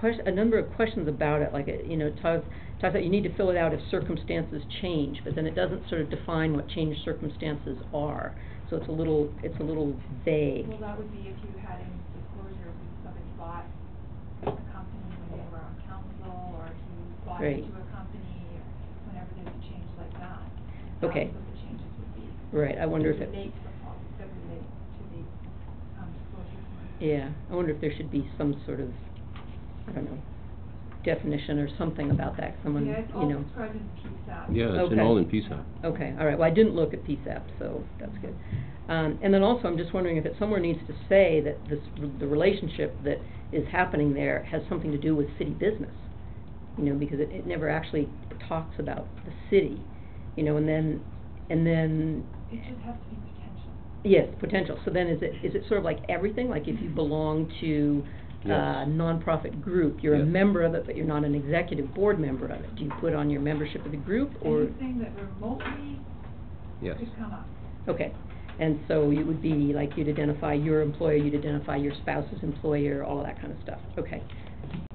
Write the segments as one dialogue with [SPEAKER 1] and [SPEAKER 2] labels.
[SPEAKER 1] ques- a number of questions about it, like, it, you know, it talks, talks about you need to fill it out if circumstances change, but then it doesn't sort of define what changed circumstances are. So it's a little, it's a little vague.
[SPEAKER 2] Well, that would be if you had any disclosures, if somebody bought a company when they were on council, or if you bought
[SPEAKER 1] Right.
[SPEAKER 2] into a company, or whenever there's a change like that.
[SPEAKER 1] Okay.
[SPEAKER 2] That's what the changes would be.
[SPEAKER 1] Right, I wonder if it-
[SPEAKER 2] Relate to the pol- that relate to the, um, disclosure. form.
[SPEAKER 1] Yeah, I wonder if there should be some sort of, I don't know, definition or something about that, someone, you know.
[SPEAKER 2] Yeah, it's all described in PSAP.
[SPEAKER 3] Yeah, it's in
[SPEAKER 1] Okay.
[SPEAKER 3] all in PSAP.
[SPEAKER 1] Okay, all right, well, I didn't look at PSAP, so that's good. Um, and then also, I'm just wondering if it somewhere needs to say that this, the relationship that is happening there has something to do with city business. You know, because it, it never actually talks about the city, you know, and then, and then,
[SPEAKER 2] It just has to be potential.
[SPEAKER 1] yes, potential. So then is it, is it sort of like everything, like if you belong to a
[SPEAKER 3] Yes.
[SPEAKER 1] nonprofit group, you're a
[SPEAKER 3] Yes.
[SPEAKER 1] member of it, but you're not an executive board member of it? Do you put on your membership of the group or?
[SPEAKER 3] Mm-hmm.
[SPEAKER 2] Anything that remotely
[SPEAKER 3] Yes.
[SPEAKER 2] could come up.
[SPEAKER 1] Okay, and so it would be like you'd identify your employer, you'd identify your spouse's employer, all of that kind of stuff, okay.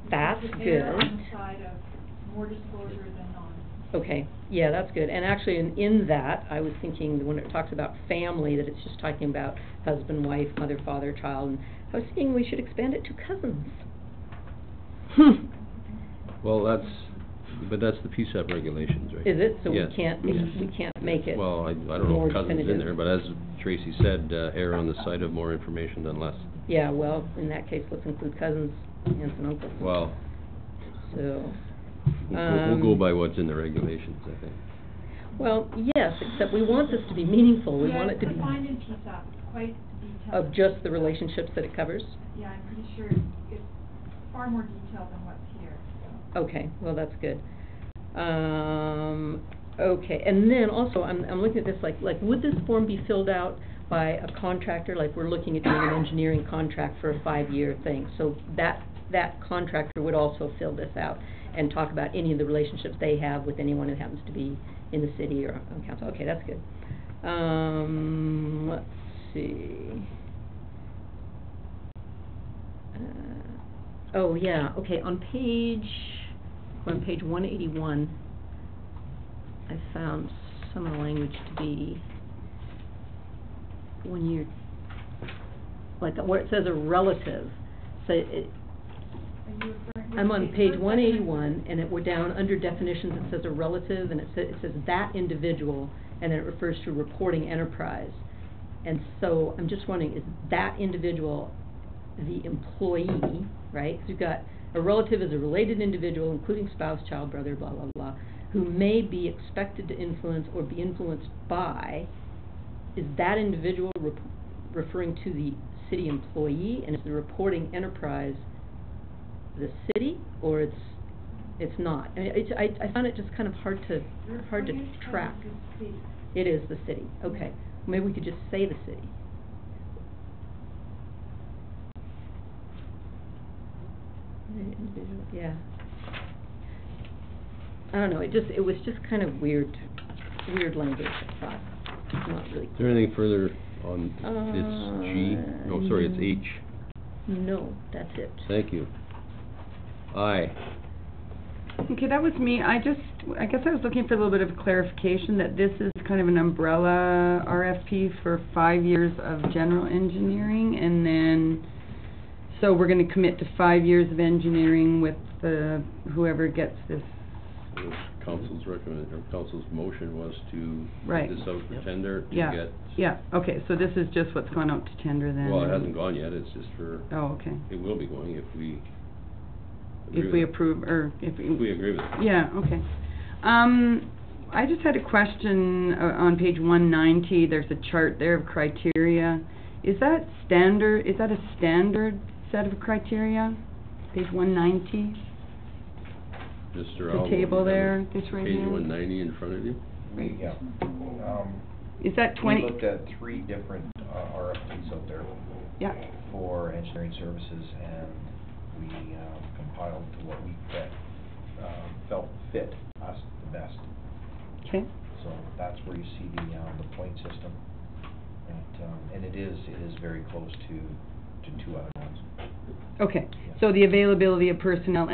[SPEAKER 1] That's
[SPEAKER 2] Because
[SPEAKER 1] good.
[SPEAKER 2] they're on the side of more disclosure than non.
[SPEAKER 1] Okay, yeah, that's good, and actually, in, in that, I was thinking, when it talks about family, that it's just talking about husband, wife, mother, father, child, and I was thinking we should expand it to cousins. Oh.
[SPEAKER 3] Well, that's, but that's the PSAP regulations, right?
[SPEAKER 1] Is it, so we
[SPEAKER 3] Yes,
[SPEAKER 1] can't, we
[SPEAKER 3] yes.
[SPEAKER 1] we can't make it?
[SPEAKER 3] Well, I, I don't know
[SPEAKER 1] more
[SPEAKER 3] if cousins in there,
[SPEAKER 1] definitive.
[SPEAKER 3] but as Tracy said, uh, err on the side of more information than less.
[SPEAKER 1] Yeah, well, in that case, let's include cousins, aunts and uncles.
[SPEAKER 3] Well,
[SPEAKER 1] So.
[SPEAKER 3] we'll, we'll
[SPEAKER 1] um,
[SPEAKER 3] go by what's in the regulations, I think.
[SPEAKER 1] Well, yes, except we want this to be meaningful, we want it to
[SPEAKER 2] Yeah, it's defined in
[SPEAKER 1] be
[SPEAKER 2] PSAP, it's quite detailed.
[SPEAKER 1] of just the relationships that it covers?
[SPEAKER 2] Yeah, I'm pretty sure it's- it's far more detailed than what's here, so.
[SPEAKER 1] Okay, well, that's good. Um, okay, and then also, I'm, I'm looking at this, like, like, would this form be filled out by a contractor? Like, we're looking at doing an engineering contract for a five-year thing, so that, that contractor would also fill this out and talk about any of the relationships they have with anyone who happens to be in the city or on council. Okay, that's good. Um, let's see. Uh, Oh, yeah, okay, on page, we're on page one eighty-one, I found some of the language to be, when you're, like, where it says a relative, so it,
[SPEAKER 2] Are you referring? which
[SPEAKER 1] Oh. I'm on page
[SPEAKER 2] first
[SPEAKER 1] one
[SPEAKER 2] section?
[SPEAKER 1] eighty-one, and it, we're down under definitions, it says a relative, and it says, it says that individual, and then it refers to reporting enterprise. And so, I'm just wondering, is that individual the employee, right? So you've got, a relative is a related individual, including spouse, child, brother, blah, blah, blah, who may be expected to influence or be influenced by, is that individual rep- referring to the city employee, and is the reporting enterprise the city, or it's, it's not? I mean, it's, I, I found it just kind of hard to,
[SPEAKER 2] Your
[SPEAKER 1] hard to
[SPEAKER 2] reporting
[SPEAKER 1] track.
[SPEAKER 2] is the state.
[SPEAKER 1] It is the city, okay. Maybe we could just say the city. The individual- Yeah. I don't know, it just, it was just kind of weird, weird language, I thought, It's not really.
[SPEAKER 3] Is there anything further on this G? No, sorry,
[SPEAKER 1] Uh,
[SPEAKER 3] it's
[SPEAKER 1] no.
[SPEAKER 3] H.
[SPEAKER 1] No, that's it.
[SPEAKER 3] Thank you. I,
[SPEAKER 4] Okay, that was me. I just, I guess I was looking for a little bit of clarification that this is kind of an umbrella RFP for five years of general engineering and then, so we're gonna commit to five years of engineering with the, whoever gets this.
[SPEAKER 3] council's recommend, or council's motion was to
[SPEAKER 4] Right.
[SPEAKER 3] put this out for tender. to
[SPEAKER 4] Yeah,
[SPEAKER 3] get-
[SPEAKER 4] yeah, okay, so this is just what's gone out to tender then?
[SPEAKER 3] Well, it hasn't gone yet, it's just for,
[SPEAKER 4] Oh, okay.
[SPEAKER 3] it will be going if we. agree
[SPEAKER 4] If we
[SPEAKER 3] with it.
[SPEAKER 4] approve, or if.
[SPEAKER 3] If we agree with it.
[SPEAKER 4] Yeah, okay. Um, I just had a question uh, on page one ninety, there's a chart there of criteria. Is that standard, is that a standard set of criteria? Page one ninety,
[SPEAKER 3] Just
[SPEAKER 4] the
[SPEAKER 3] around.
[SPEAKER 4] table there, this right
[SPEAKER 3] Page one
[SPEAKER 4] here?
[SPEAKER 3] ninety in front of you?
[SPEAKER 4] Right.
[SPEAKER 5] Yeah. Um,
[SPEAKER 4] Is that
[SPEAKER 5] we
[SPEAKER 4] twenty?
[SPEAKER 5] looked at three different uh, RFPs out there
[SPEAKER 4] Yeah,
[SPEAKER 5] for engineering services, and we um, compiled to what we fit, um, felt fit us the best.
[SPEAKER 4] okay,
[SPEAKER 5] So that's where you see the, um, the point system. And, um, and it is, it is very close to, to two other ones.
[SPEAKER 4] Okay, so the availability of personnel